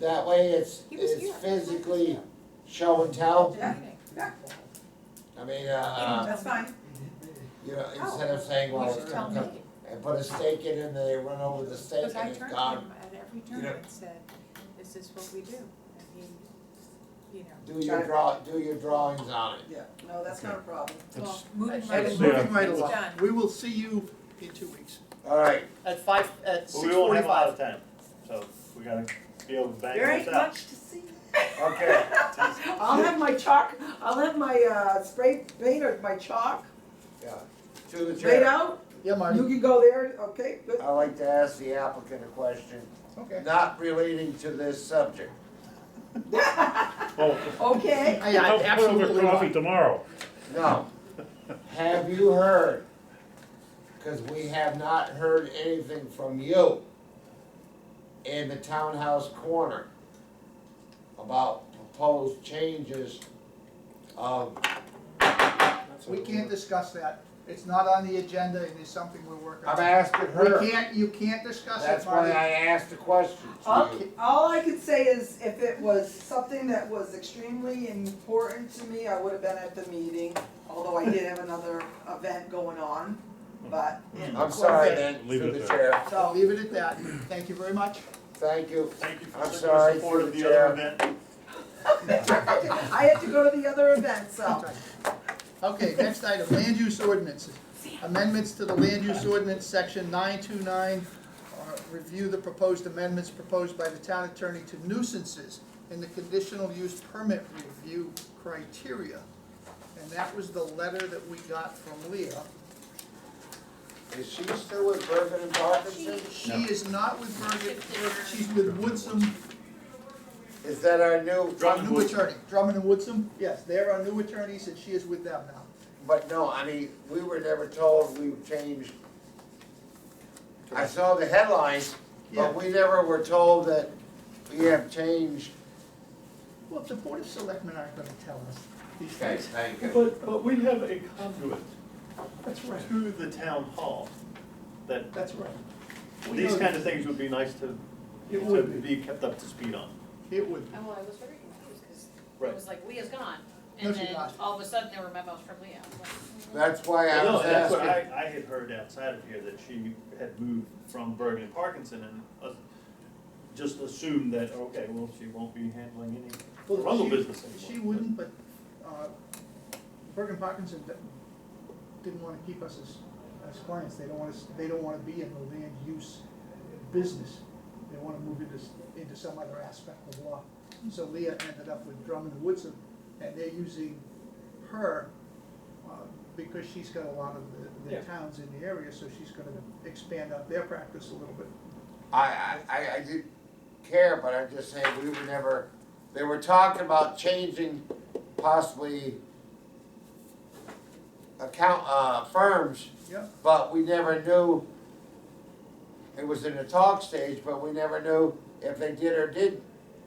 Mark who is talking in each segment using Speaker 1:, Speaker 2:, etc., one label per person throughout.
Speaker 1: That way it's,
Speaker 2: He was
Speaker 1: it's
Speaker 2: here.
Speaker 1: physically Oh. show and tell, I mean, uh, uh,
Speaker 3: That's fine.
Speaker 1: you know, instead of saying, well,
Speaker 2: oh, You should
Speaker 1: it's
Speaker 2: tell
Speaker 1: gonna
Speaker 2: me,
Speaker 1: come, and put a stake in it, and they run over the stake
Speaker 2: because I
Speaker 1: and it's
Speaker 2: turned to
Speaker 1: gone,
Speaker 2: him at every
Speaker 1: You
Speaker 2: turn
Speaker 1: know.
Speaker 2: and said, this is what we do, and he, you know,
Speaker 1: do your draw, do your drawings on it.
Speaker 3: Yeah, no, that's not a problem.
Speaker 2: well,
Speaker 4: It's-
Speaker 2: moving
Speaker 5: And
Speaker 2: right
Speaker 5: it's
Speaker 2: along.
Speaker 5: moving right
Speaker 2: It's
Speaker 5: along.
Speaker 2: done.
Speaker 5: We will see you in two weeks.
Speaker 1: Alright,
Speaker 6: At five, at
Speaker 4: But
Speaker 6: six
Speaker 4: we won't have a lot
Speaker 6: forty-five.
Speaker 4: of time, so we gotta be able to bang
Speaker 7: There
Speaker 4: this
Speaker 7: ain't
Speaker 4: out.
Speaker 7: much to see.
Speaker 1: okay,
Speaker 3: I'll have my chalk, I'll have my uh, spray paint or my chalk
Speaker 1: yeah, to the
Speaker 3: laid
Speaker 1: chair,
Speaker 3: out.
Speaker 6: Yeah,
Speaker 3: You
Speaker 6: Marty,
Speaker 3: can go there, okay, good.
Speaker 1: I'd like to ask the applicant a question,
Speaker 6: okay.
Speaker 1: not relating to this subject.
Speaker 8: Oh,
Speaker 3: Okay,
Speaker 6: I, I absolutely
Speaker 8: coffee
Speaker 6: not.
Speaker 8: tomorrow.
Speaker 1: No. Have you heard? Cause we have not heard anything from you in the townhouse corner about proposed changes of,
Speaker 6: We can't discuss that. It's not on the agenda and it's something we're working
Speaker 1: I'm
Speaker 6: on.
Speaker 1: asking
Speaker 6: We
Speaker 1: her.
Speaker 6: can't, you can't discuss
Speaker 1: That's
Speaker 6: it,
Speaker 1: why I
Speaker 6: Marty.
Speaker 1: asked the question to
Speaker 3: all,
Speaker 1: you.
Speaker 3: all I could say is if it was something that was extremely important to me, I would have been at the meeting, although I did have another event going on, but. and of
Speaker 1: I'm
Speaker 3: course-
Speaker 1: sorry then,
Speaker 8: Leave
Speaker 1: through
Speaker 8: it
Speaker 1: the
Speaker 8: there.
Speaker 1: chair.
Speaker 6: I'll
Speaker 3: So,
Speaker 6: leave it at that. Thank you very much.
Speaker 1: Thank you.
Speaker 4: Thank you for
Speaker 1: I'm
Speaker 4: your
Speaker 1: sorry,
Speaker 4: support of
Speaker 1: through the
Speaker 4: the other
Speaker 1: chair.
Speaker 4: event.
Speaker 3: I had to go to the other event, so.
Speaker 6: Okay, next item, land use ordinances. Amendments to the land use ordinance, section nine two nine. Uh, Review the proposed amendments proposed by the town attorney to nuisances in the conditional use permit review criteria. And that was the letter that we got from Leah.
Speaker 1: Is she still with Bergen and Parkinson?
Speaker 6: She is not with Bergen, she's with Woodsum,
Speaker 1: Is that our new?
Speaker 6: our new attorney, Drummond and Woodsum. Yes, they're our new attorneys and she is with them now.
Speaker 1: But no, I mean, we were never told we changed. I saw the headlines,
Speaker 6: Yeah.
Speaker 1: but we never were told that we have changed.
Speaker 6: Well, the Board of Selectmen aren't gonna tell us these
Speaker 1: Okay,
Speaker 6: things.
Speaker 1: thank you.
Speaker 4: But, but we have a conduit
Speaker 6: That's right,
Speaker 4: to the town hall, that
Speaker 6: that's right. We
Speaker 4: these
Speaker 6: know
Speaker 4: kind
Speaker 6: that.
Speaker 4: of things would be nice to,
Speaker 6: It
Speaker 4: to
Speaker 6: would
Speaker 4: be kept up to speed on.
Speaker 6: It would be.
Speaker 9: Oh, well, I was very confused, because
Speaker 4: Right.
Speaker 9: it was like Leah's gone,
Speaker 6: No,
Speaker 9: and
Speaker 6: she's
Speaker 9: then
Speaker 6: not.
Speaker 9: all of a sudden there were memos from Leah.
Speaker 1: That's why I
Speaker 4: No,
Speaker 1: was
Speaker 4: that's what
Speaker 1: asking.
Speaker 4: I, I had heard outside of here, that she had moved from Bergen and Parkinson and us- just assumed that, okay, well, she won't be handling any
Speaker 6: Well,
Speaker 4: rental
Speaker 6: she-
Speaker 4: business anymore.
Speaker 6: She wouldn't, but, uh, Bergen Parkinson d- didn't wanna keep us as, as clients, they don't want us, they don't wanna be in the land use business. They wanna move into, s- into some other aspect of law. So Leah ended up with Drummond and Woodson, and they're using her, uh, because she's got a lot of the, the
Speaker 4: Yeah.
Speaker 6: towns in the area, so she's gonna expand out their practice a little bit.
Speaker 1: I, I, I, I didn't care, but I'm just saying, we were never, they were talking about changing possibly account, uh, firms,
Speaker 6: Yeah,
Speaker 1: but we never knew. It was in the talk stage, but we never knew if they did or didn't.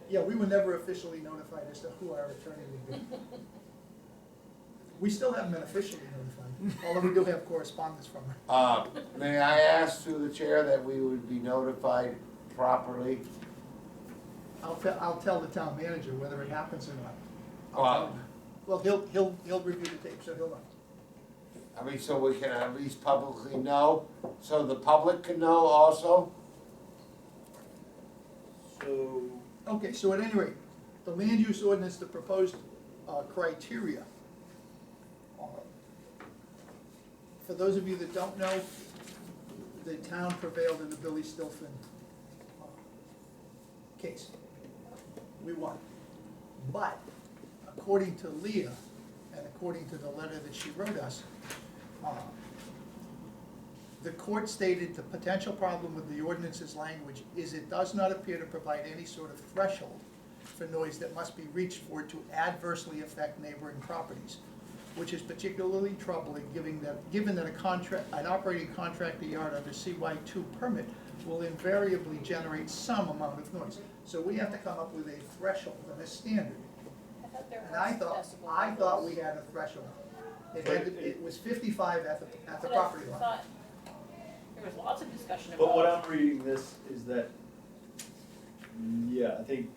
Speaker 6: yeah, we were never officially notified as to who our attorney would be. We still haven't been officially notified, although we do have correspondence from her.
Speaker 1: Uh, may I ask through the chair that we would be notified properly?
Speaker 6: I'll tell, I'll tell the town manager whether it happens or not.
Speaker 1: Uh,
Speaker 6: Well, he'll, he'll, he'll review the tape, so he'll know.
Speaker 1: I mean, so we can at least publicly know, so the public can know also?
Speaker 4: So,
Speaker 6: Okay, so at any rate, the land use ordinance, the proposed uh, criteria. Uh, For those of you that don't know, the town prevailed in the Billy Stilfen uh, case. We won. But according to Leah, and according to the letter that she wrote us, uh, the court stated the potential problem with the ordinance's language is it does not appear to provide any sort of threshold for noise that must be reached for it to adversely affect neighboring properties, which is particularly troubling, giving that, given that a contract, an operating contractor yard under CY two permit will invariably generate some amount of noise. So we have to come up with a threshold and a standard.
Speaker 9: I thought there
Speaker 6: And
Speaker 9: were
Speaker 6: I thought,
Speaker 9: decibel
Speaker 6: I thought we
Speaker 9: levels.
Speaker 6: had a threshold. It had, to- it was fifty-five at the, at the
Speaker 9: But I
Speaker 6: property line.
Speaker 9: thought There was lots of discussion about.
Speaker 4: but what I'm reading this is that, yeah, I think